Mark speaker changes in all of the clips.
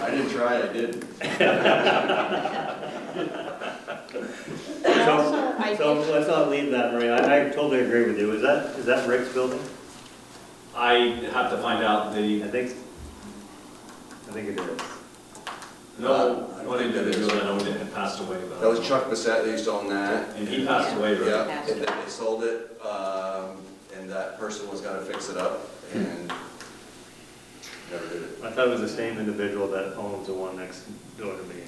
Speaker 1: I didn't try, I didn't.
Speaker 2: And
Speaker 3: So-
Speaker 2: also, I
Speaker 3: So
Speaker 2: did
Speaker 3: let's not leave that, Maria, I I totally agree with you, is that, is that Rick's building?
Speaker 4: I have to find out
Speaker 3: I
Speaker 4: the,
Speaker 3: think, I think it is.
Speaker 1: Uh, I
Speaker 4: no, I
Speaker 1: don't
Speaker 4: don't
Speaker 1: think
Speaker 4: think
Speaker 1: that
Speaker 4: that
Speaker 1: is.
Speaker 4: is, I know it had passed away, but.
Speaker 1: That was Chuck Bissett that used to own that.
Speaker 4: And he passed away, right?
Speaker 1: Yeah, and then they sold it, um, and that person was gonna fix it up and never did it.
Speaker 3: I thought it was the same individual that owns the one next door to me.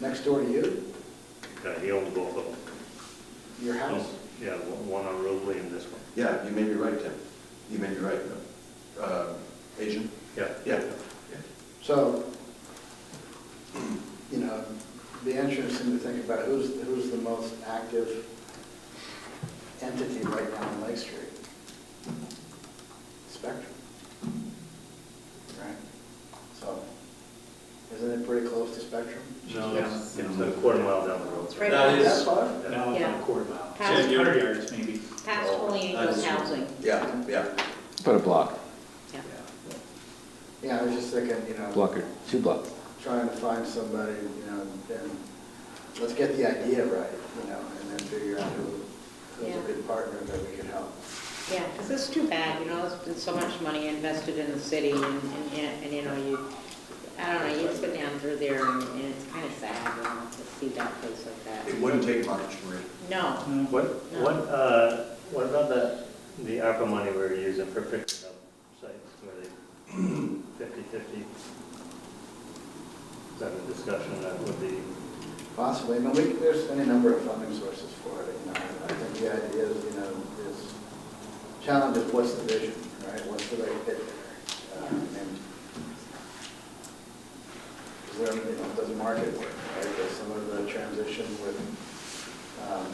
Speaker 5: Next door to you,
Speaker 3: Yeah, he owns both of them.
Speaker 5: your house.
Speaker 3: Yeah, one on Robley and this one.
Speaker 1: Yeah, you may be right, Tim. You may be right, uh, agent.
Speaker 3: Yeah.
Speaker 1: Yeah.
Speaker 5: So, you know, the interesting to think about who's, who's the most active entity right now on Lake Street? Spectrum. Right? So, isn't it pretty close to Spectrum?
Speaker 3: No, it's it's a quarter mile down the road.
Speaker 2: Right.
Speaker 4: That
Speaker 5: That
Speaker 4: is,
Speaker 5: far?
Speaker 6: Now it's on
Speaker 2: Yeah.
Speaker 6: a quarter mile,
Speaker 2: Past-
Speaker 6: six hundred yards maybe.
Speaker 2: past Holy Angels Housing.
Speaker 1: Yeah, yeah.
Speaker 7: About a block,
Speaker 2: Yeah.
Speaker 5: Yeah, I was just thinking, you know.
Speaker 7: block or two blocks.
Speaker 5: trying to find somebody, you know, and let's get the idea right, you know, and then figure out who, who's
Speaker 2: Yeah.
Speaker 5: a good partner that we could help.
Speaker 2: Yeah, because it's too bad, you know, there's been so much money invested in the city and, and, and, you know, you, I don't know, you sit down through there and and it's kind of sad, you know, to see that place like that.
Speaker 1: It wouldn't take much, Marie.
Speaker 2: No,
Speaker 6: No,
Speaker 3: Mm, What, what, uh, what about the, the ARPA money we were using for fixing up sites, were they fifty-fifty? Is that a discussion that would be,
Speaker 5: Possibly, I mean, we, there's any number of funding sources for it, you know, I think the idea is, you know, is, challenge is what's the vision, right, what's the right fit there? Uh, and Is there, you know, does the market work, right, does some of the transition with, um,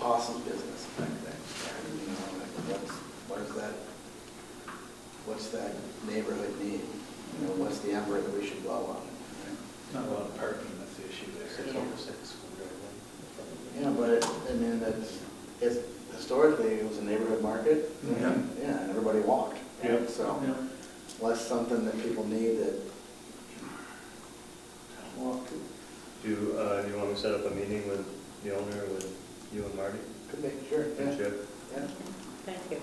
Speaker 5: possum business type thing, right, you know, like, what's, what is that, what's that neighborhood need? You know, what's the ember that we should blow on, right?
Speaker 6: Not a lot of parking, that's the issue there.
Speaker 2: It's over
Speaker 6: six.
Speaker 5: Yeah, but, it- I mean, that's, it's, historically, it was a neighborhood market.
Speaker 1: Yeah.
Speaker 5: Yeah, and everybody walked.
Speaker 3: Yeah.
Speaker 5: So, unless something that people need that, well, could,
Speaker 3: do, uh, do you want to set up a meeting with the owner, with you and Marty?
Speaker 5: could make sure,
Speaker 3: And
Speaker 5: yeah,
Speaker 3: Chip?
Speaker 5: yeah.
Speaker 2: thank you.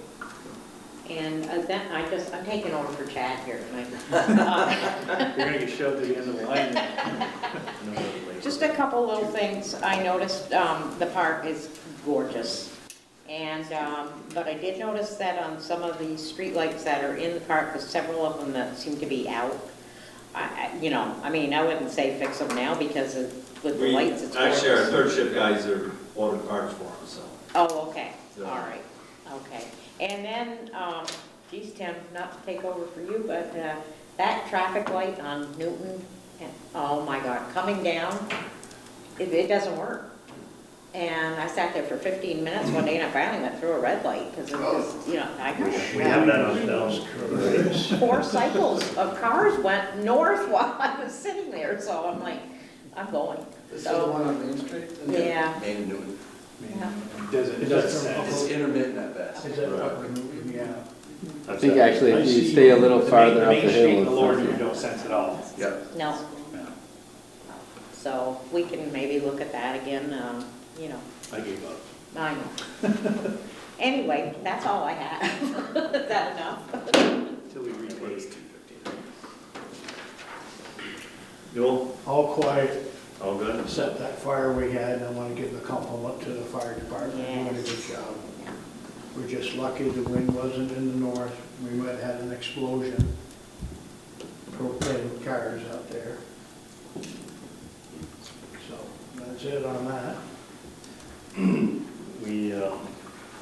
Speaker 2: And uh, then I just, I'm taking over for Chad here tonight.
Speaker 6: You're gonna get shoved to the end of the line.
Speaker 3: No, no, later.
Speaker 2: Just a couple little things. I noticed, um, the park is gorgeous. And, um, but I did notice that on some of the streetlights that are in the park, there's several of them that seem to be out. I, I- you know, I mean, I wouldn't say fix them now because of- with the
Speaker 4: we,
Speaker 2: lights, it's gorgeous.
Speaker 4: actually, our third shift guys are ordering parts for him, so.
Speaker 2: Oh, okay,
Speaker 4: So-
Speaker 2: all right, okay. And then, um, geez, Tim, not to take over for you, but uh, that traffic light on Newton, and- oh my God, coming down, it, it doesn't work. And I sat there for 15 minutes one day and I finally went through a red light because it was, you know, I
Speaker 3: Oh. We have
Speaker 2: got
Speaker 3: that on film.
Speaker 2: four cycles of cars went north while I was sitting there, so I'm like, I'm going.
Speaker 5: This is the
Speaker 2: So,
Speaker 5: one on Main Street?
Speaker 2: yeah,
Speaker 1: And Newton.
Speaker 2: Yeah.
Speaker 6: It doesn't, it doesn't
Speaker 1: It's
Speaker 6: set.
Speaker 1: intermittent at best.
Speaker 6: Is that fucking- yeah.
Speaker 7: I think actually if you stay a little
Speaker 6: The main-
Speaker 7: farther up the
Speaker 6: Main Street
Speaker 7: hill.
Speaker 6: in the lower,
Speaker 7: it's-
Speaker 6: you don't sense at all.
Speaker 1: Yeah.
Speaker 2: no.
Speaker 6: No,
Speaker 2: So we can maybe look at that again, um, you know,
Speaker 6: I gave up.
Speaker 2: I know. Anyway, that's all I have. Is that enough?
Speaker 6: Till we repaid.
Speaker 3: Newell,
Speaker 8: All quiet,
Speaker 3: all good?
Speaker 8: except that fire we had, I want to give a compliment to the fire department, they did a good
Speaker 2: Yes.
Speaker 8: job. We're just lucky the wind wasn't in the north, we might have had an explosion, propane cars out there. So, that's it on that.
Speaker 3: We, um,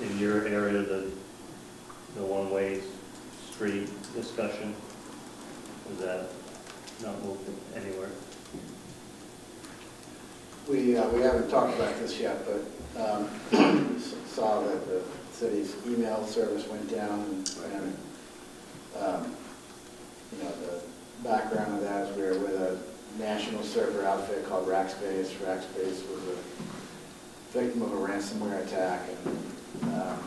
Speaker 3: in your area, the, the one-way street discussion, is that not moved anywhere?
Speaker 5: We, uh, we haven't talked about this yet, but um, s- saw that the city's email service went down, and, um, you know, the background of that is we were with a national server outfit called Rackspace. Rackspace was a victim of a ransomware attack, and um,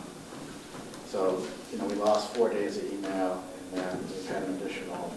Speaker 5: so, you know, we lost four days of email, and then we've had an additional